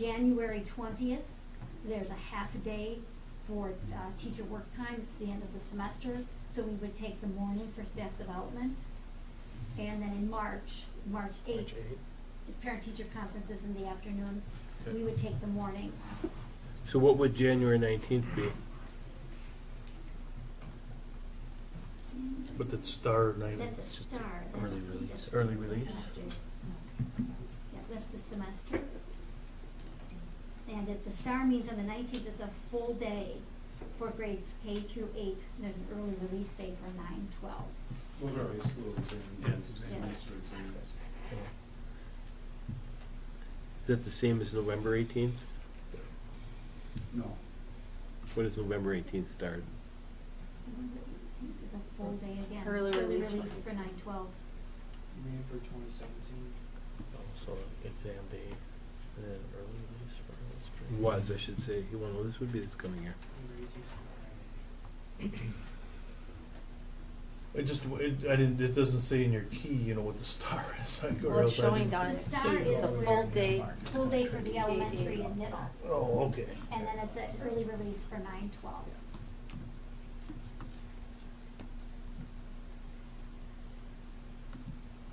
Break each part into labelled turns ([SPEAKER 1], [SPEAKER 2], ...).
[SPEAKER 1] January twentieth, there's a half a day for, uh, teacher work time, it's the end of the semester, so we would take the morning for staff development. And then in March, March
[SPEAKER 2] March
[SPEAKER 1] eighth,
[SPEAKER 2] eighth.
[SPEAKER 1] is parent-teacher conferences in the afternoon, we would take the morning.
[SPEAKER 3] So what would January nineteenth be?
[SPEAKER 4] But the star night.
[SPEAKER 1] That's a star. that
[SPEAKER 5] early
[SPEAKER 1] would be
[SPEAKER 5] release.
[SPEAKER 1] just-
[SPEAKER 3] Early
[SPEAKER 1] it's a
[SPEAKER 3] release.
[SPEAKER 1] semester. Yeah, that's the semester. And if the star means on the nineteenth, it's a full day for grades K through eight, and there's an early release day for nine, twelve.
[SPEAKER 6] Those are high school
[SPEAKER 4] Yeah.
[SPEAKER 6] exams,
[SPEAKER 1] Yes.
[SPEAKER 6] semester exams.
[SPEAKER 3] Is that the same as November eighteenth?
[SPEAKER 6] No,
[SPEAKER 3] What does November eighteenth start?
[SPEAKER 1] November 18th Is a full day again.
[SPEAKER 7] Early release ones.
[SPEAKER 1] for nine, twelve.
[SPEAKER 2] You mean for twenty seventeen?
[SPEAKER 5] So exam day, and then early release for early spring.
[SPEAKER 3] Was, I should say, you know, this would be this coming year.
[SPEAKER 4] I just, it, I didn't, it doesn't say in your key, you know, what the star is, like, or
[SPEAKER 7] Well, it's
[SPEAKER 4] else I
[SPEAKER 7] showing
[SPEAKER 4] didn't.
[SPEAKER 7] down
[SPEAKER 1] The
[SPEAKER 7] at
[SPEAKER 1] star
[SPEAKER 7] eight, it's a
[SPEAKER 1] is
[SPEAKER 7] full
[SPEAKER 1] where-
[SPEAKER 7] day.
[SPEAKER 1] Full day for the elementary and middle,
[SPEAKER 4] Oh, okay.
[SPEAKER 1] and then it's an early release for nine, twelve.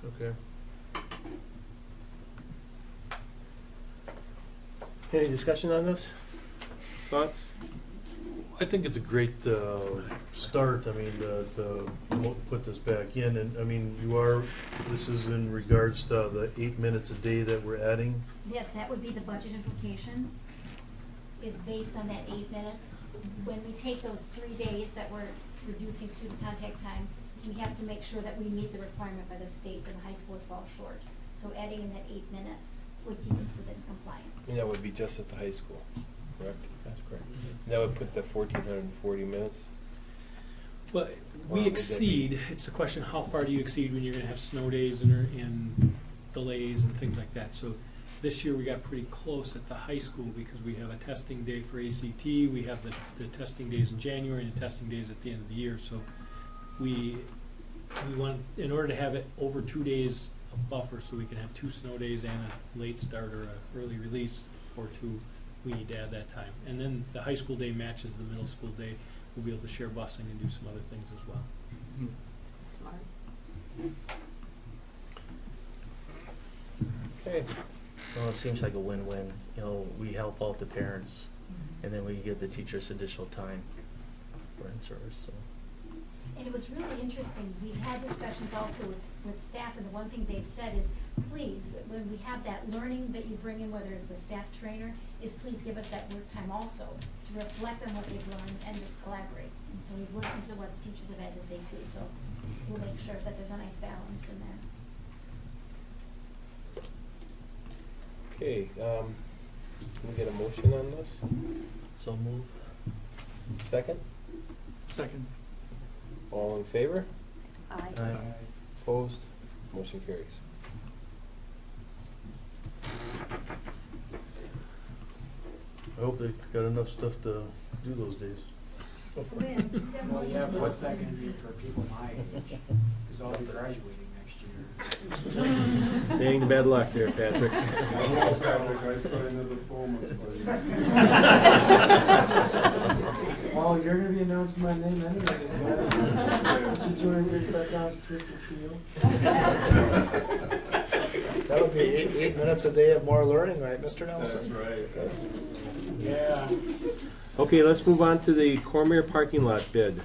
[SPEAKER 4] Okay.
[SPEAKER 3] Any discussion on this? Thoughts?
[SPEAKER 4] I think it's a great, uh, start, I mean, to, to mo- put this back in, and, I mean, you are, this is in regards to the eight minutes a day that we're adding.
[SPEAKER 1] Yes, that would be the budget implication, is based on that eight minutes. When we take those three days that we're reducing student contact time, we have to make sure that we meet the requirement by the state and the high school would fall short. So adding in that eight minutes would keep us within compliance.
[SPEAKER 3] that would be just at the high school, correct?
[SPEAKER 5] That's correct.
[SPEAKER 3] That would put the fourteen hundred and forty minutes.
[SPEAKER 8] Well,
[SPEAKER 3] Or would that
[SPEAKER 8] we
[SPEAKER 3] be-
[SPEAKER 8] exceed, it's the question, how far do you exceed when you're gonna have snow days and, and delays and things like that? So this year, we got pretty close at the high school because we have a testing day for ACT, we have the, the testing days in January and the testing days at the end of the year, so we, we want, in order to have it over two days of buffer, so we can have two snow days and a late start or a early release or two, we need to add that time. And then the high school day matches the middle school day, we'll be able to share busing and do some other things as well.
[SPEAKER 7] Smart.
[SPEAKER 3] Okay.
[SPEAKER 5] Well, it seems like a win-win, you know, we help out the parents, and then we give the teachers additional time for in-service, so.
[SPEAKER 1] And it was really interesting, we've had discussions also with, with staff, and the one thing they've said is, please, wh- when we have that learning that you bring in, whether it's a staff trainer, is please give us that work time also, to reflect on what they've learned and just collaborate. And so we've listened to what the teachers have had to say too, so we'll make sure that there's a nice balance in there.
[SPEAKER 3] Okay, um, can we get a motion on this?
[SPEAKER 5] So move.
[SPEAKER 3] Second?
[SPEAKER 8] Second.
[SPEAKER 3] All in favor?
[SPEAKER 7] Aye.
[SPEAKER 5] Aye.
[SPEAKER 3] Opposed? Motion carries.
[SPEAKER 4] I hope they got enough stuff to do those days.
[SPEAKER 2] Well, yeah, but what's that gonna be for people my age? Cause I'll be graduating next year.
[SPEAKER 3] Dang, bad luck there, Patrick.
[SPEAKER 6] I will Patrick, I signed the diploma for you.
[SPEAKER 2] Well, you're gonna be announcing my name anyway. So doing your background's twisted steel.
[SPEAKER 5] That would be eight, eight minutes a day of more learning, right, Mr.
[SPEAKER 6] That's right. That's-
[SPEAKER 2] Yeah.
[SPEAKER 3] Okay, let's move on to the Cormier parking lot bid.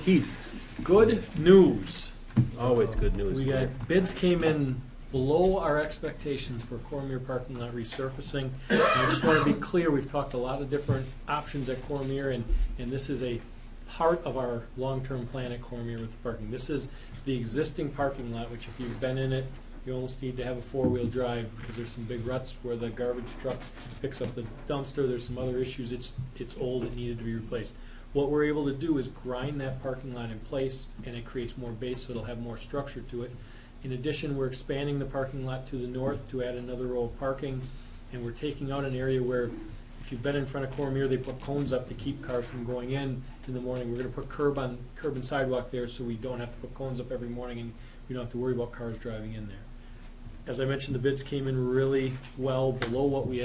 [SPEAKER 3] Keith,
[SPEAKER 8] Good news.
[SPEAKER 3] always good news.
[SPEAKER 8] We got, bids came in below our expectations for Cormier parking lot resurfacing. And I just want to be clear, we've talked a lot of different options at Cormier, and, and this is a part of our long-term plan at Cormier with the parking. This is the existing parking lot, which if you've been in it, you almost need to have a four-wheel drive, because there's some big ruts where the garbage truck picks up the dumpster, there's some other issues, it's, it's old, it needed to be replaced. What we're able to do is grind that parking lot in place, and it creates more base, so it'll have more structure to it. In addition, we're expanding the parking lot to the north to add another row of parking, and we're taking out an area where, if you've been in front of Cormier, they put cones up to keep cars from going in in the morning. We're gonna put curb on, curb and sidewalk there, so we don't have to put cones up every morning, and we don't have to worry about cars driving in there. As I mentioned, the bids came in really well, below what we